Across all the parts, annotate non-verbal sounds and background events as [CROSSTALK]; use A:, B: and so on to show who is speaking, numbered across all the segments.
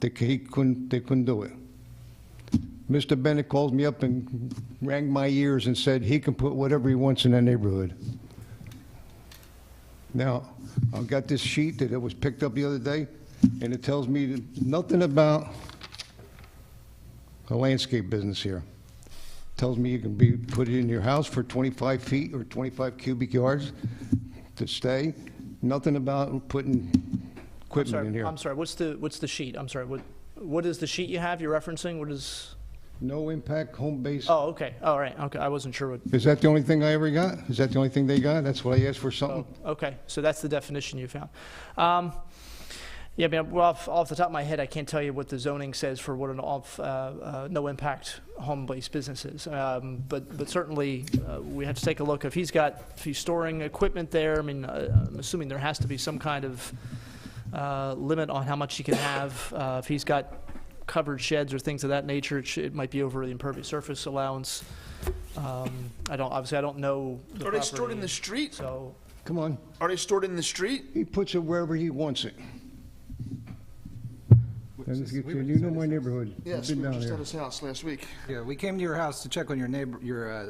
A: They, c- he couldn't, they couldn't do it. Mr. Bennett called me up and rang my ears and said he can put whatever he wants in that neighborhood. Now, I've got this sheet that it was picked up the other day, and it tells me that nothing about a landscape business here. Tells me you can be, put it in your house for 25 feet or 25 cubic yards to stay. Nothing about putting
B: I'm
A: equipment in
B: sorry,
A: here.
B: I'm sorry, what's the, what's the sheet? I'm sorry, what, what is the sheet you have, you're referencing? What is,
A: No impact, home base.
B: oh, okay, all right, okay, I wasn't sure what,
A: Is that the only thing I ever got? Is that the only thing they got? That's what I asked for something?
B: Oh, okay, so that's the definition you found. Um, yeah, I mean, well, off, off the top of my head, I can't tell you what the zoning says for what an off, uh, uh, no-impact home-based business is. Um, but, but certainly, uh, we have to take a look, if he's got, if he's storing equipment there, I mean, uh, I'm assuming there has to be some kind of, uh, limit on how much he can have. Uh, if he's got covered sheds or things of that nature, it, sh- it might be over the impervious surface allowance. Um, I don't, obviously, I don't know the
C: Are they stored in the
B: property,
C: street?
B: So,
A: Come on.
C: Are they stored in the street?
A: He puts it wherever he wants it. And if you, you know my neighborhood. I've
C: Yes, we
A: been
C: were
A: down
C: just
A: there.
C: at his house last week.
D: Yeah, we came to your house to check on your neighbor, your, uh,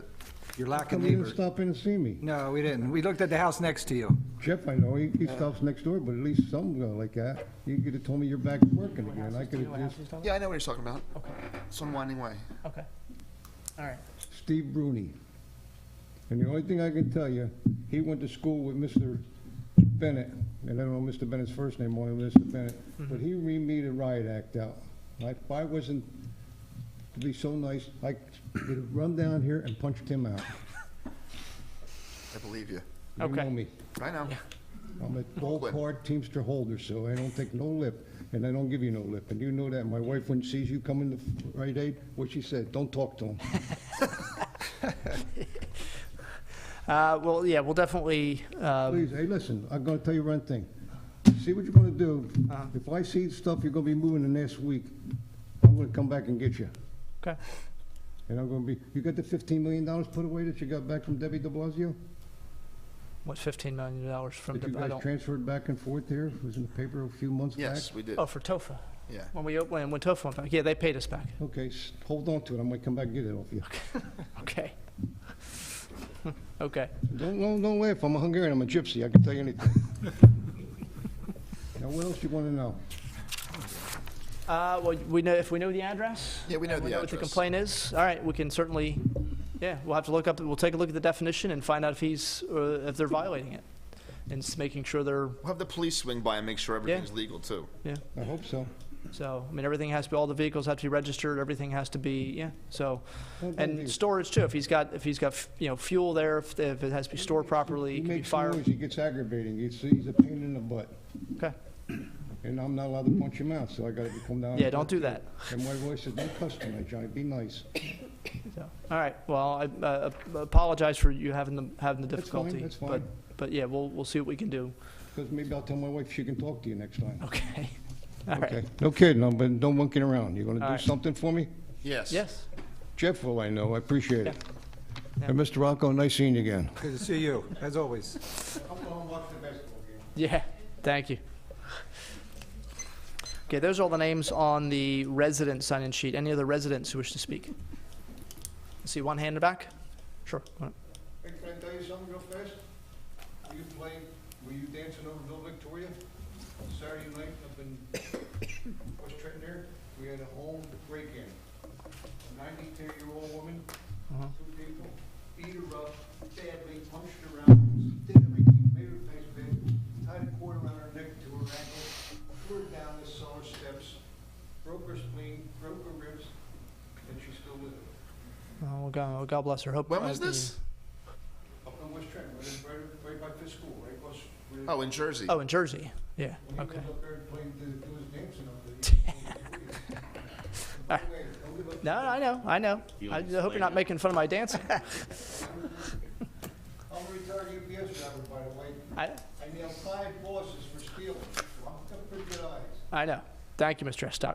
D: your lack of
A: Come even
D: neighbor.
A: stop in and see me.
D: No, we didn't. We looked at the house next to you.
A: Jeff, I know, he, he stops next door, but at least some go like that. You could have told me you're back working again. I could have just,
C: Yeah, I know what he's talking about.
B: Okay.
C: It's unwinding way.
B: okay, all right.
A: Steve Bruni. And the only thing I can tell you, he went to school with Mr. Bennett, and I don't know Mr. Bennett's first name, only Mr. Bennett, but he read me the riot act out. If I wasn't, to be so nice, I would have run down here and punched him out.
C: I believe you.
A: You
B: Okay.
A: know me.
C: I know.
A: I'm a gold-card Teamster holder, so I don't take no lip, and I don't give you no lip, and you know that. My wife, when she sees you coming to Rite Aid, what she said, don't talk to him.
B: Uh, well, yeah, we'll definitely, um,
A: Please, hey, listen, I'm gonna tell you one thing. See what you're gonna do.
B: Uh-huh.
A: If I see stuff you're gonna be moving the next week, I'm gonna come back and get you.
B: okay,
A: And I'm gonna be, you got the fifteen million dollars put away that you got back from Debbie de Blasio?
B: what, fifteen million dollars from,
A: That you
B: the- I
A: guys
B: don't,
A: transferred back and forth here, It was in the paper a few months back?
C: Yes, we did.
B: oh, for TOFA,
C: Yeah.
B: when we, op- when, when TOFA went back, yeah, they paid us back,
A: Okay, s- hold on to it, I might come back and get it off you.
B: okay. [LAUGHS] Okay,
A: Don't, don't, don't laugh, I'm a Hungarian, I'm a gypsy, I can tell you
B: [LAUGHS]
A: anything. Now, what else you wanna know?
B: uh, well, we know, if we know the address?
C: Yeah, we know
B: and What
C: the
B: the
C: address.
B: complaint is, all right, we can certainly, yeah, we'll have to look up, we'll take a look at the definition and find out if he's, uh, if they're violating it, and s- making sure they're,
C: We'll have the police swing by and make sure everything's legal, too.
B: yeah,
A: I hope so.
B: so, I mean, everything has to be, all the vehicles have to be registered, everything has to be, yeah, so,
A: Well, don't
B: and
A: leave.
B: storage too, if he's got, if he's got, f- you know, fuel there, if if it has to be stored properly,
A: He
B: it can be
A: makes noise,
B: fired,
A: he gets aggravating, he's, he's a pain in the butt.
B: okay,
A: And I'm not allowed to punch him out, so I gotta come down.
B: yeah, don't do that.
A: And my voice says, don't cuss tonight, Johnny, be nice.
B: So, all right, well, I uh, apologize for you having the, having the
A: That's fine,
B: difficulty.
A: that's
B: but-
A: fine.
B: But, yeah, we'll, we'll see what we can do. [LAUGHS]
A: Because maybe I'll tell my wife she can talk to you next time.
B: Okay, all right.
A: Okay. No kidding, I'm- but don't monkey around. You're
B: All
A: gonna
B: right.
A: do something for me?
C: Yes.
B: Yes,
A: Jeff will, I know, I appreciate it.
B: Yeah.
A: And Mr. Rocco, nice seeing you again.
D: Good to see you, as always.
B: yeah, thank you. Okay, those are all the names on the resident sign-in sheet. Any other residents who wish to speak? See one hand in the back? Sure. all right.
A: Hey, can I tell you something real fast? Were you playing, were you dancing over Bill Victoria Saturday night up in [COUGHS] West Trenton there? We had a home break-in. A ninety-two-year-old woman, two people, beat her up badly, punched her around, did everything, made her face big, tied a cord around her neck to her ankle, threw her down the cellar steps, broke her spleen, broke her ribs, and she's still with it.
B: Oh, God, God bless her. Hope.
C: When
B: uh,
C: was
B: the-
C: this?
A: Up in West Trenton, right, right, right by the school, right across. where-
C: Oh, in Jersey.
B: Oh, in Jersey, yeah,
A: When he
B: okay.
A: was up there and played the, do his dancing up there. he was playing the- By the way, don't give up-
B: No, I know, I know. I hope you're not making fun of my dancing.
A: I'm a retired UPS driver, by the way.
B: I,
A: I nailed five bosses for stealing, so I'm got pretty good eyes.
B: I know. Thank you, Mr. Estock.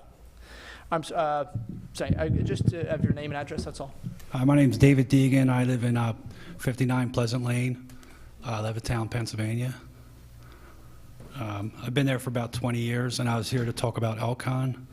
B: I'm, s- uh, sorry, I just uh, have your name and address, that's all.
E: Hi, Uh, my name's David Deegan. I live in uh, 59 Pleasant Lane, uh, Levittown, Pennsylvania. Um, I've been there for about 20 years, and I was here to talk about Elcon.